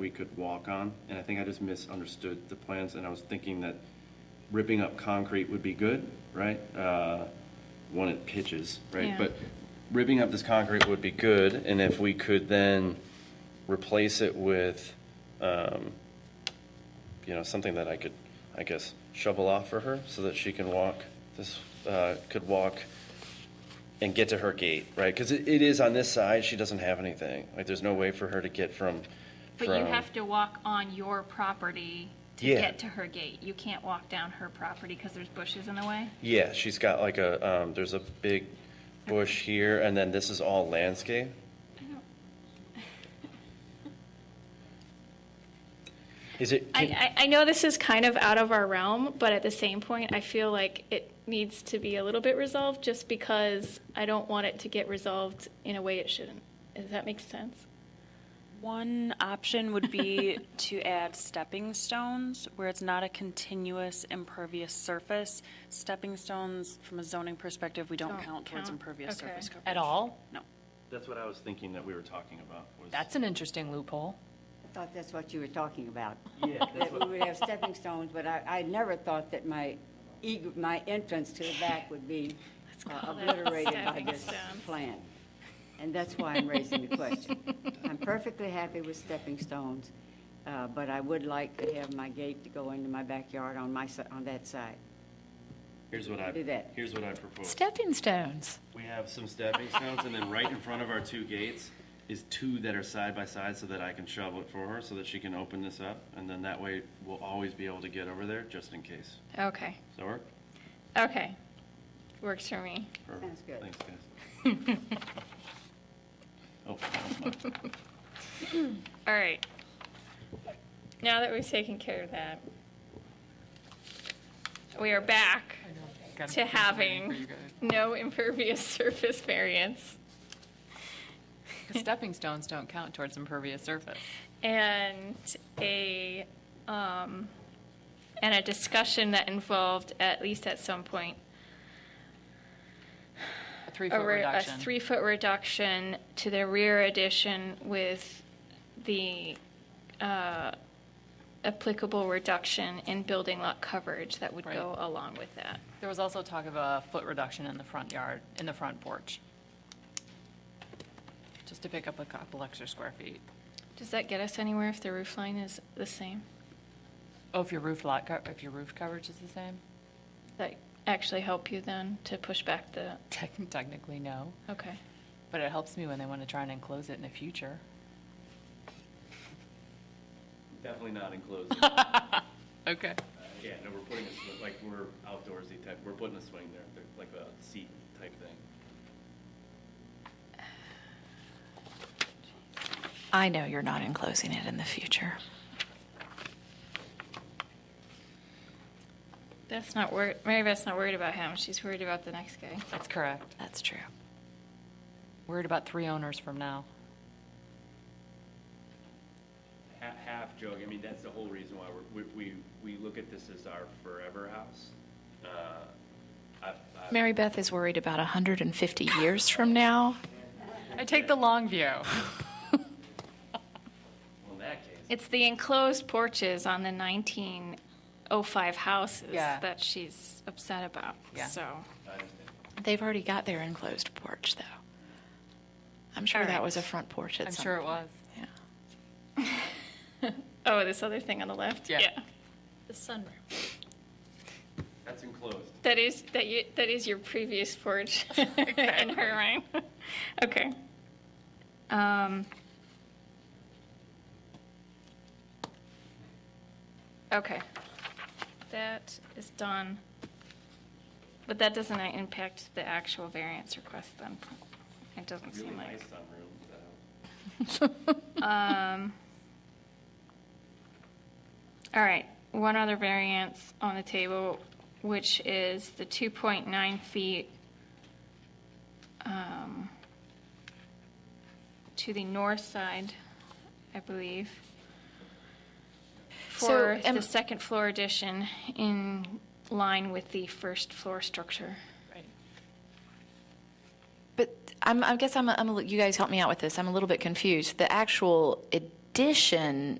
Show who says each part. Speaker 1: we could walk on, and I think I just misunderstood the plans, and I was thinking that ripping up concrete would be good, right? Uh, One, it pitches, right?
Speaker 2: Yeah.
Speaker 1: But ripping up this concrete would be good, and if we could then replace it with, um, you know, something that I could, I guess, shovel off for her so that she can walk, this, uh, could walk and get to her gate, right? Because it, it is on this side, she doesn't have anything. Like, there's no way for her to get from,
Speaker 2: But you
Speaker 1: from-
Speaker 2: have to walk on your property to
Speaker 1: Yeah.
Speaker 2: get to her gate. You can't walk down her property because there's bushes in the way.
Speaker 1: Yeah, she's got like a, um, there's a big bush here, and then this is all landscape. Is it?
Speaker 3: I,
Speaker 1: can-
Speaker 3: I, I know this is kind of out of our realm, but at the same point, I feel like it needs to be a little bit resolved just because I don't want it to get resolved in a way it shouldn't. Does that make sense?
Speaker 4: One option would be to add stepping stones where it's not a continuous impervious surface. Stepping stones, from a zoning perspective, we don't
Speaker 3: Don't
Speaker 4: count towards
Speaker 3: count.
Speaker 4: impervious
Speaker 3: Okay.
Speaker 4: surface coverage.
Speaker 5: At all?
Speaker 4: No.
Speaker 1: That's what I was thinking that we were talking about. was-
Speaker 5: That's an interesting loophole.
Speaker 6: I thought that's what you were talking about.
Speaker 1: Yeah, that's
Speaker 6: That we
Speaker 1: what,
Speaker 6: would have stepping stones, but I, I never thought that my, eg- my entrance to the back would be uh,
Speaker 3: call that
Speaker 6: obliterated by
Speaker 3: stepping
Speaker 6: this
Speaker 3: stones.
Speaker 6: plan. And that's why I'm raising the question. I'm perfectly happy with stepping stones, uh, but I would like to have my gate to go into my backyard on my, si- on that side.
Speaker 1: here's what I,
Speaker 6: Do that.
Speaker 1: here's what I propose.
Speaker 5: Stepping stones.
Speaker 1: We have some stepping stones, and then right in front of our two gates is two that are side by side so that I can shovel it for her, so that she can open this up. And then that way, we'll always be able to get over there, just in case.
Speaker 3: Okay.
Speaker 1: Does that work?
Speaker 3: Okay. Works for me.
Speaker 1: Perfect.
Speaker 6: Sounds good.
Speaker 1: Thanks, guys. Oh, that was mine.
Speaker 3: All right. Now that we've taken care of that, we are back to having no impervious surface variance.
Speaker 7: Stepping stones don't count towards impervious surface.
Speaker 3: and a, um, and a discussion that involved, at least at some point,
Speaker 7: A three-foot
Speaker 3: a, re- a
Speaker 7: reduction.
Speaker 3: three foot reduction to the rear addition with the uh, applicable reduction in building lot coverage that would
Speaker 7: Right.
Speaker 3: go along with that.
Speaker 7: There was also talk of a foot reduction in the front yard, in the front porch. Just to pick up a couple extra square feet.
Speaker 3: Does that get us anywhere if the roof line is the same?
Speaker 7: Oh, if your roof lot, co- if your roof coverage is the same?
Speaker 3: That actually help you then to push back the,
Speaker 7: Techn- Technically, no,
Speaker 3: okay.
Speaker 7: but it helps me when they want to try and enclose it in the future.
Speaker 1: Definitely not enclosed.
Speaker 7: Okay.
Speaker 1: Yeah, no, we're putting a, sw- like, we're outdoorsy type, we're putting a swing there, they're like a seat type thing.
Speaker 5: I know you're not enclosing it in the future.
Speaker 3: That's not worried, Mary Beth's not worried about him, she's worried about the next guy.
Speaker 7: That's correct.
Speaker 5: That's true.
Speaker 7: Worried about three owners from now.
Speaker 1: Half, half joke, I mean, that's the whole reason why we're, we, we, we look at this as our forever house. Uh, I, I,
Speaker 5: Mary Beth is worried about 150 years from now.
Speaker 7: I take the long view.
Speaker 1: well, in that case,
Speaker 3: It's the enclosed porches on the 1905 houses
Speaker 7: Yeah.
Speaker 3: that she's upset about,
Speaker 7: Yeah.
Speaker 3: so.
Speaker 1: I understand.
Speaker 5: They've already got their enclosed porch, though. I'm sure
Speaker 3: All
Speaker 5: that
Speaker 3: right.
Speaker 5: was a front porch at
Speaker 7: I'm
Speaker 5: some
Speaker 7: sure it
Speaker 5: point.
Speaker 7: was.
Speaker 5: Yeah.
Speaker 3: Oh, this other thing on the left?
Speaker 7: Yeah.
Speaker 3: The sunroom.
Speaker 1: That's enclosed.
Speaker 3: That is, that you, that is your previous porch in her mind. Okay. Um. Okay. That is done. But that doesn't impact the actual variance request then. It doesn't
Speaker 1: Really
Speaker 3: seem like.
Speaker 1: nice sunroom, so.
Speaker 3: Um, all right, one other variance on the table, which is the 2.9 feet um, to the north side, I believe,
Speaker 5: So,
Speaker 3: for
Speaker 5: am-
Speaker 3: the second floor addition in line with the first floor structure.
Speaker 7: Right.
Speaker 5: But I'm, I guess I'm, a, I'm a, li- you guys help me out with this. I'm a little bit confused. The actual addition